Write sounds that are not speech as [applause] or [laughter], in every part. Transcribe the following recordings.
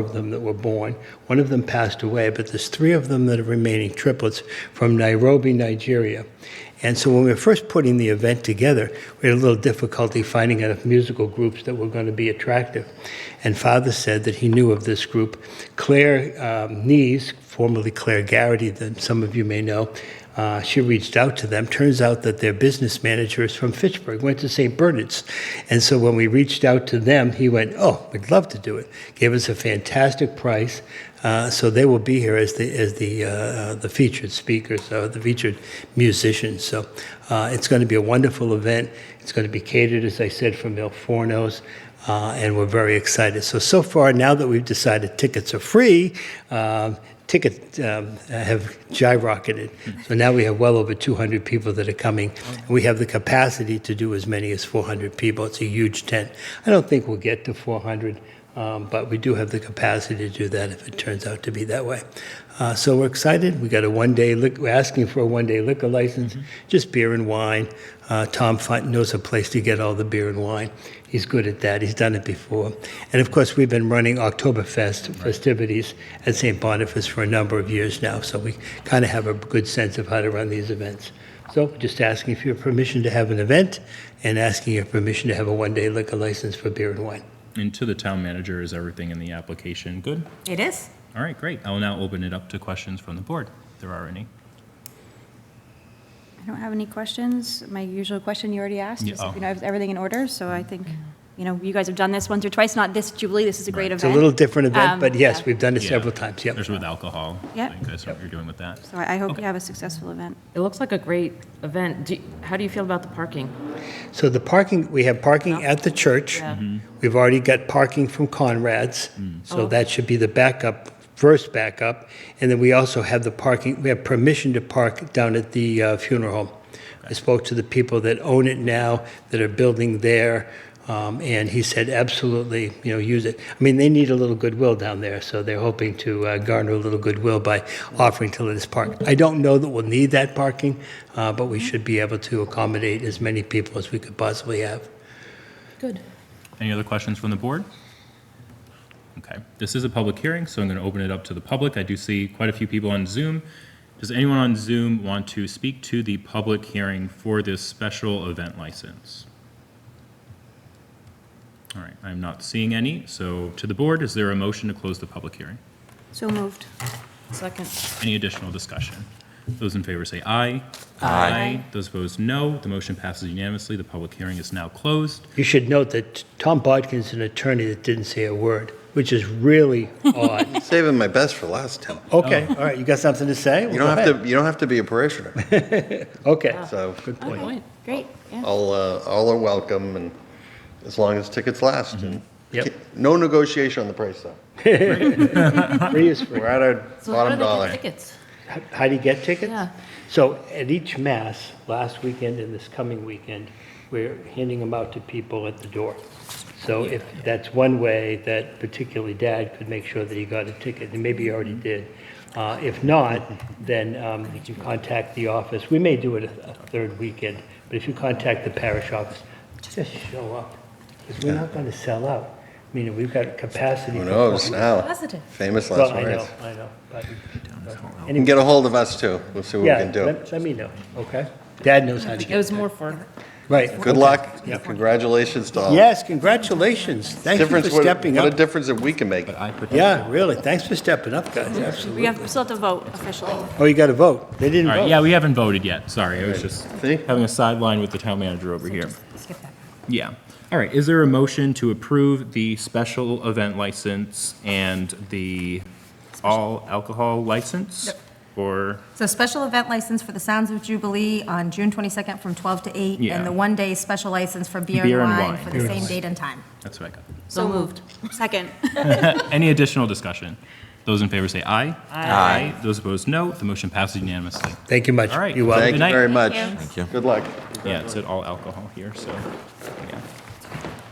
of them that were born. One of them passed away, but there's three of them that are remaining triplets from Nairobi, Nigeria. And so when we were first putting the event together, we had a little difficulty finding enough musical groups that were going to be attractive. And Father said that he knew of this group. Claire um, Nees, formerly Claire Garrity, that some of you may know, uh, she reached out to them. Turns out that their business manager is from Fitchburg, went to St. Bernard's. And so when we reached out to them, he went, Oh, we'd love to do it. Gave us a fantastic price. Uh, so they will be here as the, as the, uh, uh, the featured speakers, uh, the featured musicians. So uh, it's going to be a wonderful event. It's going to be catered, as I said, from Il Forno's. Uh, and we're very excited. So, so far, now that we've decided tickets are free, um, ticket um, have skyrocketed. So now we have well over 200 people that are coming. And we have the capacity to do as many as 400 people. It's a huge tent. I don't think we'll get to 400, um, but we do have the capacity to do that if it turns out to be that way. Uh, so we're excited. We got a one-day. Lic- we're asking for a one-day liquor license, just beer and wine. Uh, Tom Font knows a place to get all the beer and wine. He's good at that. He's done it before. And of course, we've been running Oktoberfest festivities at St. Boniface for a number of years now, so we kind of have a good sense of how to run these events. So just asking for your permission to have an event, and asking your permission to have a one-day liquor license for beer and wine. And to the town manager, is everything in the application good? It is. All right, great. I will now open it up to questions from the board, if there are any. I don't have any questions. My usual question you already asked Yeah, is, oh. if, you know, is everything in order? So I think, you know, you guys have done this once or twice, not this Jubilee, this is a great Right. event. It's a little different event, Um, but yes, yeah. we've done it Yeah. several times. Yep. There's with alcohol. Yep. I guess what you're doing with that. So I I hope Okay. you have a successful event. It looks like a great event. Do, how do you feel about the parking? So the parking, we have parking at the church. Yeah. Mm-hmm. We've already got parking from Conrad's, Mm. so Oh. that should be the backup, first backup. And then we also have the parking, we have permission to park down at the uh, funeral home. I spoke to the people that own it now, that are building there, um, and he said, absolutely, you know, use it. I mean, they need a little goodwill down there, so they're hoping to uh, garner a little goodwill by offering to let us park. I don't know that we'll need that parking, uh, but we should be able to accommodate as many people as we could possibly have. Good. Any other questions from the board? Okay, this is a public hearing, so I'm going to open it up to the public. I do see quite a few people on Zoom. Does anyone on Zoom want to speak to the public hearing for this special event license? All right, I'm not seeing any, so to the board, is there a motion to close the public hearing? So moved. Second. Any additional discussion? Those in favor say aye. Aye. Those opposed, no. The motion passes unanimously. The public hearing is now closed. You should note that Tom Bodkin's an attorney that didn't say a word, which is [laughs] really odd. Saving my best for last time. Okay, all right, you got something to say? You don't have to. You don't have to be a parishioner. to. Okay. So Good Good point. point. Great, yeah. all uh, all are welcome, and as long as tickets last, and Mm-hmm. Yep. no negotiation on the price though. Free is free. We're at our So how do they bottom get dollar. Tickets. How do you get tickets? Yeah. So at each mass, last weekend and this coming weekend, we're handing them out to people at the door. So if that's one way that particularly Dad could make sure that he got a ticket, and maybe he already did. Uh, If not, then um, you contact the office. We may do it a a third weekend, but if you contact the parish office, just show up. Because we're not going to sell out. I mean, we've got capacity. Who for- knows now? Positive. Famous Well, last I know, words. I know, but. You can get a hold of us too. We'll see what we Yeah, can do. let, let me know, okay? Dad knows how to It get, was more for, right. Good luck. and Congratulations to all. Yes, congratulations. Thank you for Difference. What, stepping what a up. difference that we can make. Yeah, really, thanks for stepping up, guys, We absolutely. have, we still have to vote officially. Oh, you got to vote. They didn't All right, vote. yeah, we haven't voted yet. Sorry, I was just See? having a sideline with the town manager over here. skip that. Yeah. All right, is there a motion to approve the special event license and the all alcohol license? Or, So special event license for the Sounds of Jubilee on June 22nd from 12 to 8, Yeah. and the one-day special license for beer and wine for the same date and time. that's what I got. So moved. Second. Any additional discussion? Those in favor say aye. Aye. Those opposed, no. The motion passes unanimously. Thank you much. All right. You're welcome. Good night. Thank you very much. you. Thank you. Good luck. Yeah, it said all alcohol here, so, yeah.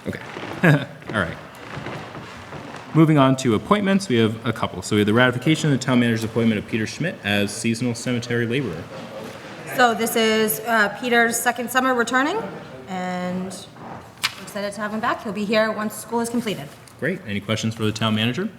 Okay. [laughs] All right. Moving on to appointments, we have a couple. So we have the ratification of the town manager's appointment of Peter Schmidt as seasonal cemetery laborer. So this is uh, Peter's second summer returning, and we're excited to have him back. He'll be here once school is completed. Great. Any questions for the town manager?